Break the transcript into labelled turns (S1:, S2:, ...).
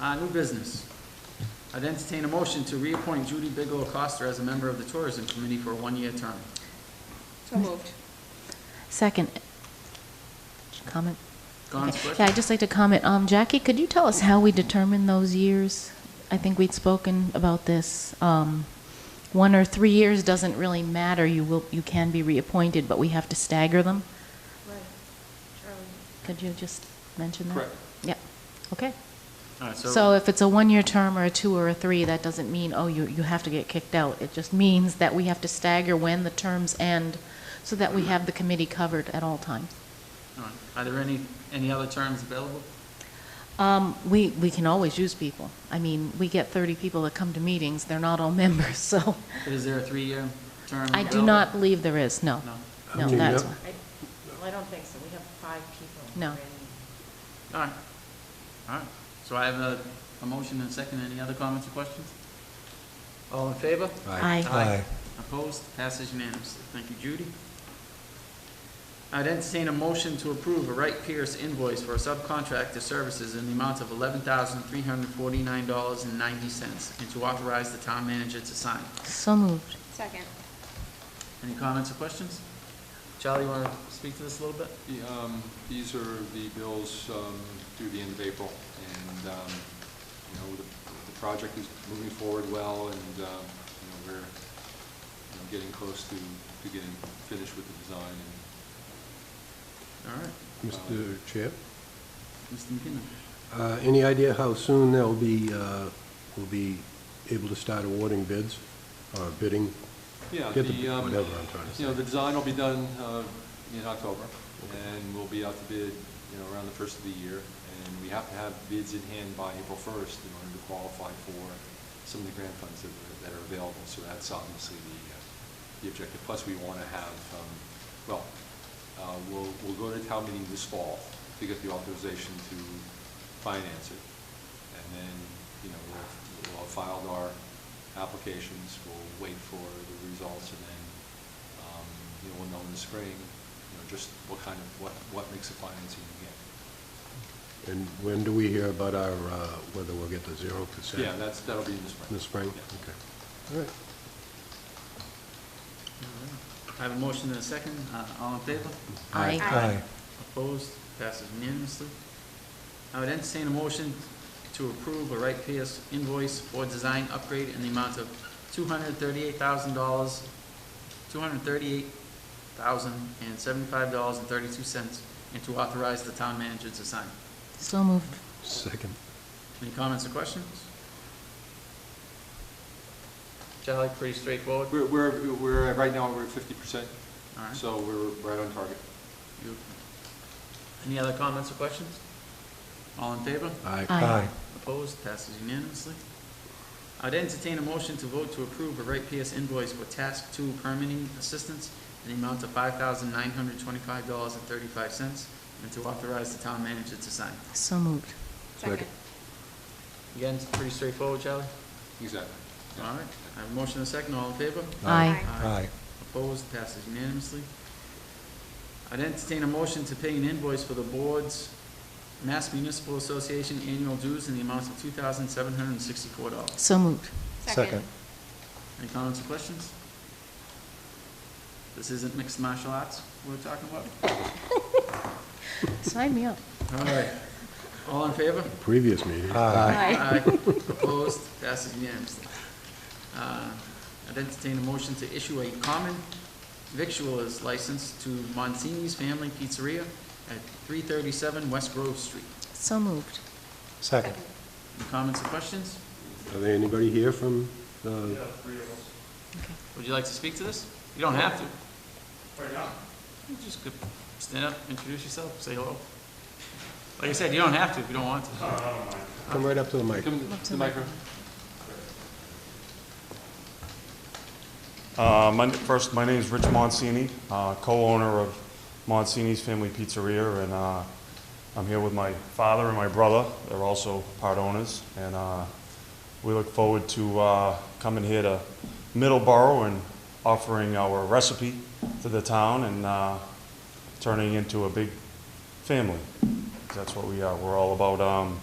S1: Uh, new business. I'd entertain a motion to reappoint Judy Bigelow Coster as a member of the Tourism Committee for a one-year term.
S2: So moved.
S3: Second. Comment?
S1: Gone,
S3: Okay.
S1: question?
S3: Yeah, I'd just like to comment, um, Jackie, could you tell us how we determine those years? I think we'd spoken about this, um, one or three years doesn't really matter, you will, you can be reappointed, but we have to stagger them.
S2: Right.
S3: Could you just mention that?
S1: Correct.
S3: Yeah, okay.
S1: All right,
S3: So if it's a one-year term or a two or a three, that doesn't mean, oh, you, you have to get kicked out. It just means that we have to stagger when the terms end, so that we have the committee covered at all times.
S1: all right. Are there any, any other terms available?
S3: Um, we, we can always use people. I mean, we get 30 people that come to meetings, they're not all members, so
S1: Is there a three-year term
S3: I do
S1: available?
S3: not believe there is, no.
S1: No.
S3: No,
S4: Okay,
S3: that's,
S4: yep.
S5: Well, I don't think so. We have five people.
S3: No.
S5: already.
S1: All right, all right. So I have a, a motion and a second. Any other comments or questions? All in favor?
S3: Aye.
S4: Aye.
S1: Opposed? Passes unanimously. Thank you, Judy. I'd entertain a motion to approve a Wright Pierce invoice for subcontractor services in the amount of eleven thousand three hundred forty-nine dollars and ninety cents, and to authorize the town manager to sign.
S3: so moved.
S2: Second.
S1: Any comments or questions? Charlie, you want to speak to this a little bit?
S6: The, um, These are the bills um, through the end of April, and, um, you know, the the project is moving forward well, and, um, you know, we're, you know, getting close to, to getting finished with the design.
S1: All right,
S4: Mr. Chair,
S1: Mr. McKinnon.
S4: uh, any idea how soon they'll be, uh, will be able to start awarding bids or bidding?
S6: Yeah,
S4: Get the-
S6: the, um,
S4: whatever I'm trying to
S6: you know,
S4: say.
S6: the design will be done uh, in October, and we'll be out to bid, you know, around the first of the year, and we have to have bids in hand by April first in order to qualify for some of the grant funds that are, that are available, so that's obviously the, uh, the objective. Plus, we want to have, um, well, uh, we'll, we'll go to town meeting this fall to get the authorization to finance it, and then, you know, we'll, we'll have filed our applications, we'll wait for the results, and then, um, you know, we'll know in the spring, you know, just what kind of, what, what makes a financing again.
S4: And when do we hear about our, uh, whether we'll get the zero percent?
S6: Yeah, that's, that'll be in the spring.
S4: In the spring?
S6: Yeah.
S4: Okay. All right.
S1: I have a motion and a second. Uh, All in favor?
S3: Aye.
S2: Aye.
S1: Opposed? Passes unanimously. I would entertain a motion to approve a Wright Pierce invoice for design upgrade in the amount of two hundred thirty-eight thousand dollars, two hundred thirty-eight thousand and seventy-five dollars and thirty-two cents, and to authorize the town manager to sign.
S3: So moved.
S4: Second.
S1: Any comments or questions? Charlie, pretty straightforward.
S6: We're, we're, we're, right now, we're at fifty percent,
S1: All right.
S6: so we're right on target.
S1: You- Any other comments or questions? All in favor?
S4: Aye.
S3: Aye. Aye.
S1: Opposed, passes unanimously. I'd entertain a motion to vote to approve a Wright PS invoice for Task Two permitting assistance in the amount of five thousand nine hundred twenty-five dollars and thirty-five cents, and to authorize the town manager to sign.
S3: So moved.
S2: Second.
S1: Again, it's pretty straightforward, Charlie.
S6: Exactly.
S1: All
S6: Yeah.
S1: right, I have a motion and a second, all in favor?
S3: Aye.
S1: Opposed, passes unanimously. I'd entertain a motion to pay an invoice for the board's Mass Municipal Association annual dues in the amount of two thousand seven hundred and sixty-four dollars.
S3: So moved.
S2: Second.
S1: Any comments or questions? This isn't mixed martial arts we're talking about?
S3: Sign me up.
S1: All right. All in favor?
S4: Previous meeting.
S1: Aye. Opposed? Passes unanimously. Uh, I'd entertain a motion to issue a common victualers license to Monsini's Family Pizzeria at 337 West Grove Street.
S3: So moved.
S2: Second.
S1: Any comments or questions?
S4: Are there anybody here from, uh,
S3: Okay.
S1: Would you like to speak to this? You don't have to. Why not? Just go- stand up, introduce yourself, say hello. Like I said, you don't have to if you don't want to.
S4: come right up to the mic.
S6: Come to the microphone.
S7: Uh, my, first, my name is Rich Monsini, uh, co-owner of Monsini's Family Pizzeria, and uh, I'm here with my father and my brother. They're also part owners, and uh, we look forward to uh, coming here to Middleborough and offering our recipe to the town and uh, turning into a big family. That's what we are. We're all about um,